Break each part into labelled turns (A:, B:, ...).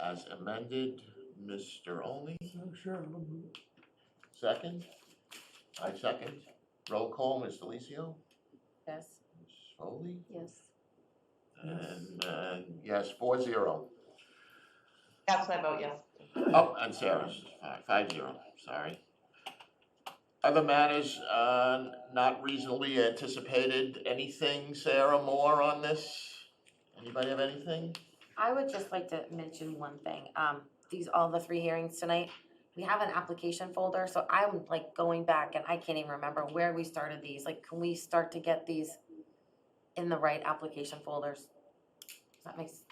A: as amended, Mr. Only,
B: Oh, Sure, I'll move it.
A: second? I second. Roll call, Ms. Delicio,
C: Yes.
A: Ms. Foley,
C: Yes.
A: and, and yes, four zero.
D: That's my vote, yes.
A: Oh, and Sarah's, five, five zero, sorry. Other matters, uh, not reasonably anticipated, anything, Sarah, more on this? Anybody have anything?
C: I would just like to mention one thing, um, these, all the three hearings tonight, we have an application folder, so I'm like going back and I can't even remember where we started these, like, can we start to get these in the right application folders? Does that make, s-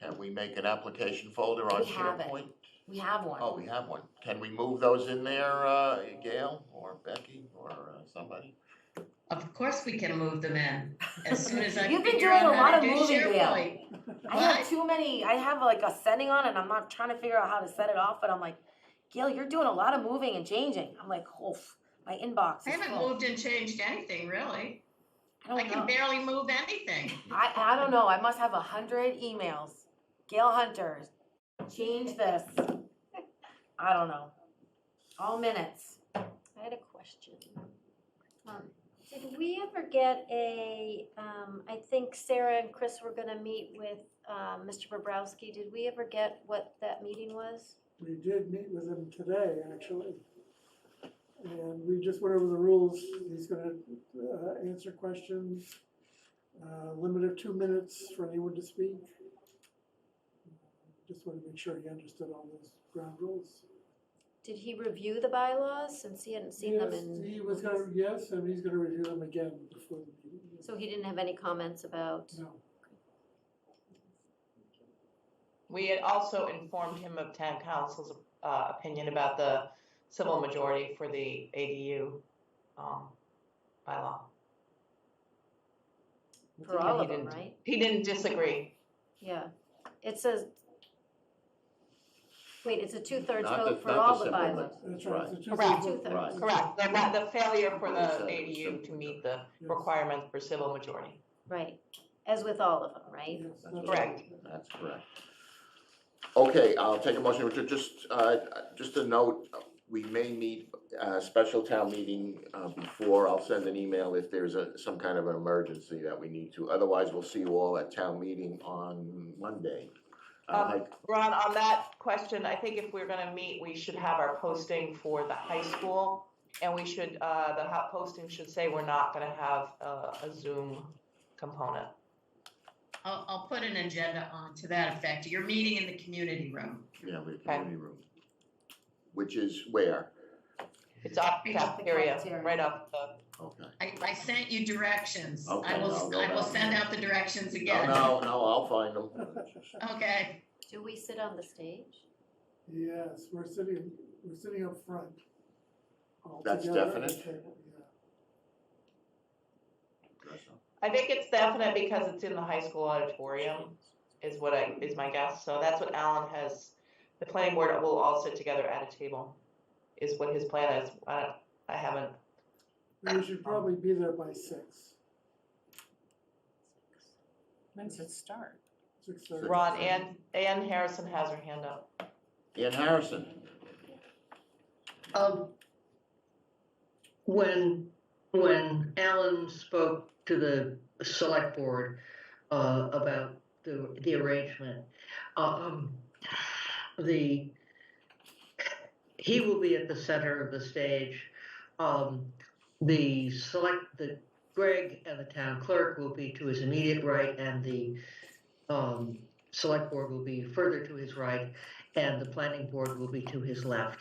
A: Can we make an application folder on
C: We have it.
A: SharePoint?
C: we have one.
A: Oh, we have one. Can we move those in there, uh, Gail or Becky or uh, somebody?
D: Of course we can move them in, as soon as I
C: You've been
D: figure
C: doing
D: out
C: a
D: how
C: lot
D: to
C: of
D: do
C: moving, Gail.
D: SharePoint.
C: I have
D: What?
C: too many, I have like a setting on and I'm not trying to figure out how to set it off, but I'm like, Gail, you're doing a lot of moving and changing, I'm like, oof, my inbox
D: I
C: is Oh,
D: haven't
C: full.
D: moved and changed anything, really.
C: I don't
D: I
C: know.
D: can barely move anything.
C: I, I don't know, I must have a hundred emails. Gail Hunter, change this. I don't know. All minutes.
E: I had a question. Um, Did we ever get a, um, I think Sarah and Chris were gonna meet with, um, Mr. Bobrowski. Did we ever get what that meeting was?
B: We did meet with him today, actually. And we just went over the rules. He's gonna uh, answer questions. uh, Limit of two minutes for anyone to speak. Just wanted to make sure he understood all those ground rules.
E: Did he review the bylaws since he hadn't seen them
B: Yes,
E: in?
B: He was gonna, yes, and he's gonna review them again before the meeting.
E: So he didn't have any comments about?
B: No,
F: We had also informed him of town council's uh, opinion about the civil majority for the ADU um, bylaw.
E: For all
F: He
E: of them,
F: didn't-
E: right?
F: He didn't disagree.
E: Yeah. It says, wait, it's a two-thirds
A: Not the-
E: vote for
A: not the
E: all the
A: simple
E: bylaws.
A: one.
B: that's right. So just-
F: Correct.
A: Right.
E: Two-thirds,
F: Correct. The, the failure for
A: Yes,
F: the
A: that was
F: ADU to
A: simple.
F: meet the
B: Yes.
F: requirements for civil majority.
E: right. As with all of them, right?
B: Yes, that's
F: Correct.
B: right.
A: That's correct. Okay, I'll take a motion, Richard, just, uh, just a note, we may need a special town meeting, uh, before, I'll send an email if there's a, some kind of an emergency that we need to, otherwise we'll see you all at town meeting on Monday. Uh, I'd
F: Um,
A: like-
F: Ron, on that question, I think if we're gonna meet, we should have our posting for the high school. And we should, uh, the hot posting should say we're not gonna have uh, a, a Zoom component.
D: I'll, I'll put an agenda on to that effect. You're meeting in the community room.
A: Yeah, we have community room. Which is where?
F: It's up cafeteria,
C: Cafeteria.
F: right up the,
A: Okay.
D: I, I sent you directions. I
A: Okay, I'll
D: will,
A: go
D: I will
A: back.
D: send out the directions
A: No,
D: again.
A: Oh, no, no, I'll find them.
D: Okay,
E: Do we sit on the stage?
B: Yes, we're sitting, we're sitting up front. all
A: That's
B: together at the
A: definite?
B: table, yeah.
F: I think it's definite because it's in the high school auditorium, is what I, is my guess. So that's what Alan has, the planning board will all sit together at a table, is what his plan is. I, don't- I haven't
B: We should probably be there by six,
G: When's it start?
B: six thirty.
F: Ron, Ann, Ann Harrison has her hand up.
A: Ian Harrison,
H: Um, when, when Alan spoke to the select board, uh, about the, the arrangement, um, the, he will be at the center of the stage. Um, the select, the Greg and the town clerk will be to his immediate right and the, um, select board will be further to his right and the planning board will be to his left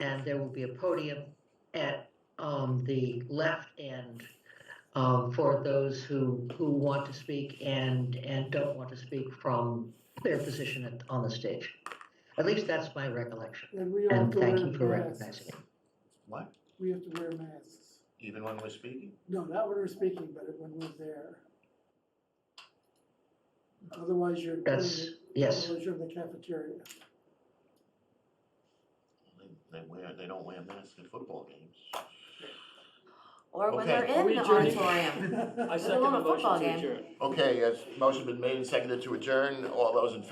H: and there will be a podium at um, the left end um, for those who who want to speak and and don't want to speak from their position at, on the stage. At least that's my recollection.
B: And we all have
H: And
B: to
H: thank you for
B: wear
H: recognizing
B: masks.
H: me.
A: what,
B: We have to wear masks.
A: even when we're speaking?
B: No, not when we're speaking, but when we're there. Otherwise, you're.
H: That's yes.
B: Otherwise, you're in the cafeteria.
A: They- They wear, they don't wear masks in football games.
C: Or when
A: Okay.
C: they're
I: Are
C: in
I: we
C: the
I: adjourned?
C: auditorium.
I: I
C: It's a
I: second the
C: little football
I: motion to
C: game.
I: adjourn.
A: Okay, has motion been made and seconded to adjourn, all those in